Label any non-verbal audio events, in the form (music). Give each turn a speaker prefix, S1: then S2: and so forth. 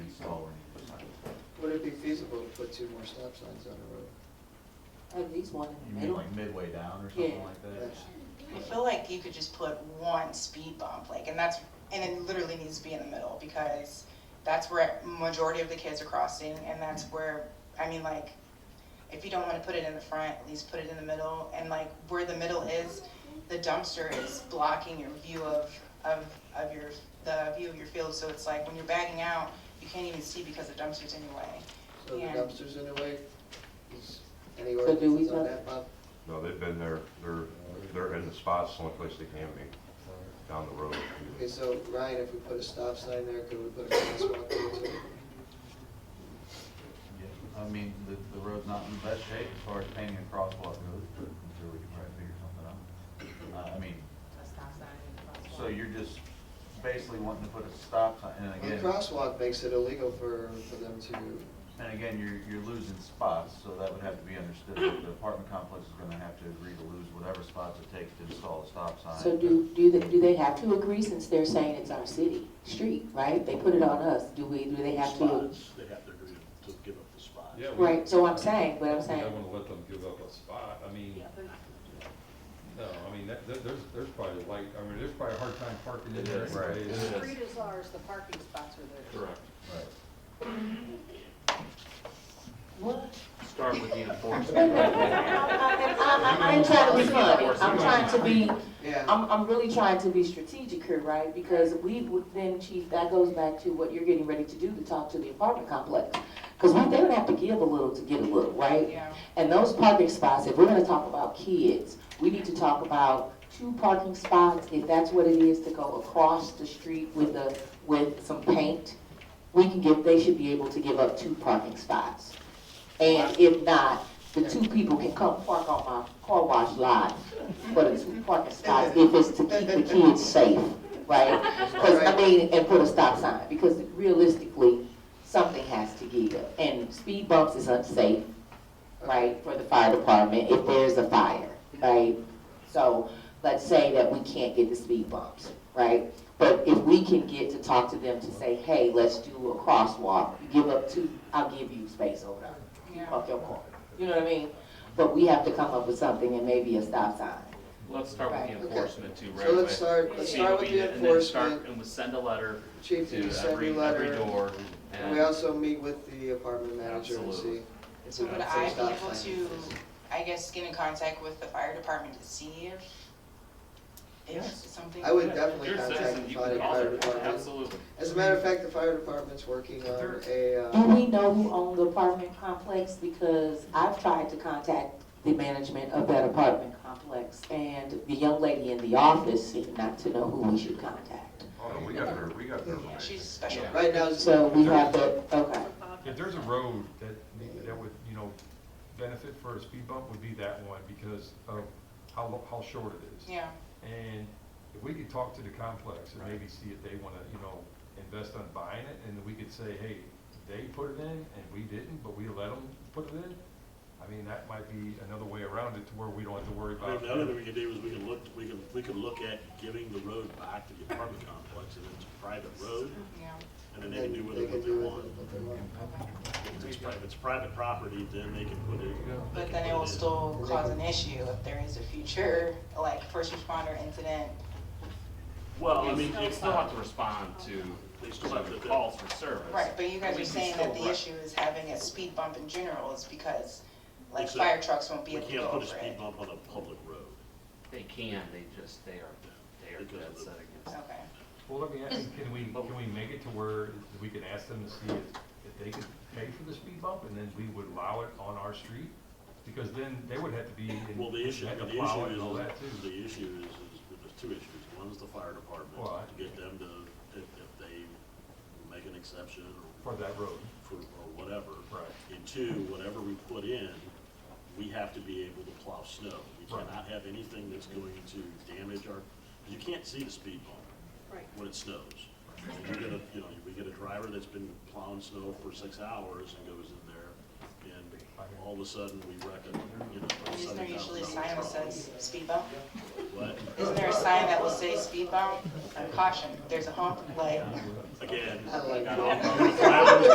S1: feasible to put two more stop signs on the road.
S2: At least one
S3: You
S2: in the
S3: mean
S2: middle.
S3: like midway down or something
S2: Yeah.
S3: like that?
S1: Yes.
S4: I feel like you could just put one speed bump, like, and that's, and it literally needs to be in the middle, because that's where majority of the kids are crossing, and that's where, I mean, like, if you don't wanna put it in the front, at least put it in the middle, and like, where the middle is, the dumpster is blocking your view of, of, of your, the view of your field, so it's like, when you're bagging out, you can't even see because the dumpster's in your way.
S1: So the
S4: Yeah.
S1: dumpsters in the way, is any
S2: So do we
S1: ordinance on
S2: not-
S1: that, Bob?
S5: No, they've been there, they're, they're in the spots, the only place they can be, down the road.
S1: Okay, so Ryan, if we put a stop sign there, could we put a crosswalk there too?
S3: Yeah. I mean, the, the road's not in the best shape as far as painting a crosswalk goes, but I'm sure we can probably figure something out. Uh, I mean, so you're just basically wanting to put a stop sign, and
S1: A
S3: again,
S1: crosswalk makes it illegal for, for them to,
S3: and again, you're, you're losing spots, so that would have to be understood. The apartment complex is gonna have to agree to lose whatever spots it takes to install a stop sign.
S2: So do, do they, do they have to agree since they're saying it's our city, street, right? They put it on us. Do we, do they have to?
S6: spots, they have to agree to to give up the spots.
S7: Yeah, we-
S2: Right, so I'm saying, but I'm
S7: We
S2: saying,
S7: don't wanna let them give up a spot, I mean, no, I mean, that, that- there's, there's probably like, I mean, there's probably a hard time parking in there
S3: Right.
S7: anyways.
S8: The street is ours, the parking spots are theirs.
S7: Correct.
S3: Right.
S2: what?
S9: Start with the
S2: And
S9: enforcement.
S2: I, I, I ain't trying to be funny. I'm trying to be,
S4: Um,
S1: yeah.
S2: I'm, I'm really trying to be strategic here, right? Because we would then, chief, that goes back to what you're getting ready to do to talk to the apartment complex. Because we, they would have to give a little to get a little, right?
S4: Yeah.
S2: And those parking spots, if we're gonna talk about kids, we need to talk about two parking spots, if that's what it is, to go across the street with a, with some paint. We can give, they should be able to give up two parking spots. And if not, the two people can come park on my car wash lot for the two parking spots, if it's to keep the kids safe, right? 'Cause, I mean, and put a stop sign, because realistically, something has to give. And speed bumps is unsafe, right, for the fire department if there's a fire, right? So let's say that we can't get the speed bumps, right? But if we can get to talk to them to say, hey, let's do a crosswalk, you give up two, I'll give you space over there. You park your car, you know what I mean? But we have to come up with something and maybe a stop sign.
S9: Let's start with the
S1: Okay.
S9: enforcement too, right
S1: So
S9: away.
S1: let's start, let's
S9: See
S1: start
S9: what
S1: with
S9: we
S1: the
S9: did, and then start-
S1: enforcement,
S9: And we send a letter
S1: chief, do
S9: to
S1: you send
S9: every,
S1: me a
S9: every
S1: letter?
S9: door.
S1: And we
S9: and-
S1: also meet with the apartment manager and
S9: Absolutely.
S1: see. if
S4: So
S1: we
S4: would
S1: can
S4: I
S1: say
S4: be
S1: stop
S4: able
S1: sign.
S4: to, I guess, get in contact with the fire department to see if, if
S9: Yes.
S4: something?
S1: I would
S9: Yeah,
S1: definitely
S9: you're a
S1: contact
S9: citizen,
S1: the
S9: you
S1: fire
S9: can call them,
S1: department.
S9: Absolutely.
S1: As a matter of fact, the fire department's working on a,
S2: Do
S1: uh,
S2: we know who owned the apartment complex? Because I've tried to contact the management of that apartment complex, and the young lady in the office seemed not to know who we should contact.
S5: Oh, no, we got their, we got their
S4: Yeah,
S5: information.
S4: she's special.
S1: right now, it's-
S2: So we have the, okay.
S7: If there's a road that, that would, you know, benefit for a speed bump would be that one because of how, lo- how short it is.
S4: Yeah,
S7: And if we could talk to the complex and maybe see if they wanna, you know, invest on buying it, and we could say, hey, they put it in and we didn't, but we let them put it in. I mean, that might be another way around it to where we don't have to worry
S6: I
S7: about.
S6: mean, another thing we could do is we could look, we could, we could look at giving the road back to the apartment complex, and it's a private road,
S4: yeah.
S6: and then
S1: then
S6: they can do with
S1: they
S6: it
S1: can
S6: what
S1: do
S6: they
S1: with
S6: want.
S1: it what they want.
S4: (laughs)
S6: If it's, pri- if it's private property, then they can put it. they
S4: But
S6: can
S4: then it
S6: put
S4: will
S6: in.
S4: still cause an issue if there is a future, like, first responder incident.
S9: Well, I mean, you still have to respond to
S6: They still have
S9: to
S6: to-
S9: the calls for service.
S4: Right, but you guys
S9: We
S4: are
S9: can
S4: saying that
S9: still
S4: the
S9: rec-
S4: issue is having a speed bump in general is because, like,
S6: It's a-
S4: fire trucks won't be
S6: We
S4: able to go
S6: can't put a
S4: over
S6: speed
S4: it.
S6: bump on a public road.
S9: They can, they just, they are, they are dead set against it.
S4: Okay.
S7: Well, let me ask, you, can we, can we make it to where we can ask them to see if, if they could pay for the speed bump, and then we would allow it on our street? Because then they would have to be, in-
S6: Well, the issue,
S7: had
S6: the
S7: to
S6: issue
S7: plow it and all
S6: is,
S7: that too.
S6: the issue is, is, there's two issues. One's the fire department,
S7: Well,
S6: to get them to, if, if they make an exception or,
S7: For that road,
S6: for, or whatever.
S7: Right.
S6: And two, whatever we put in, we have to be able to plow snow. We
S7: Right.
S6: cannot have anything that's going to damage our, you can't see the speed bump
S8: Right.
S6: when it snows. You get a, you know, we get a driver that's been plowing snow for six hours and goes in there, and all of a sudden, we wreck a, you know, a
S4: Is there
S6: seventy
S4: usually a
S6: thousand
S4: sign that
S6: dollar truck.
S4: says speed bump?
S6: But,
S4: Isn't there a sign that will say speed bump? Caution, there's a hump, like.
S6: again,
S1: I like that.
S6: I don't know.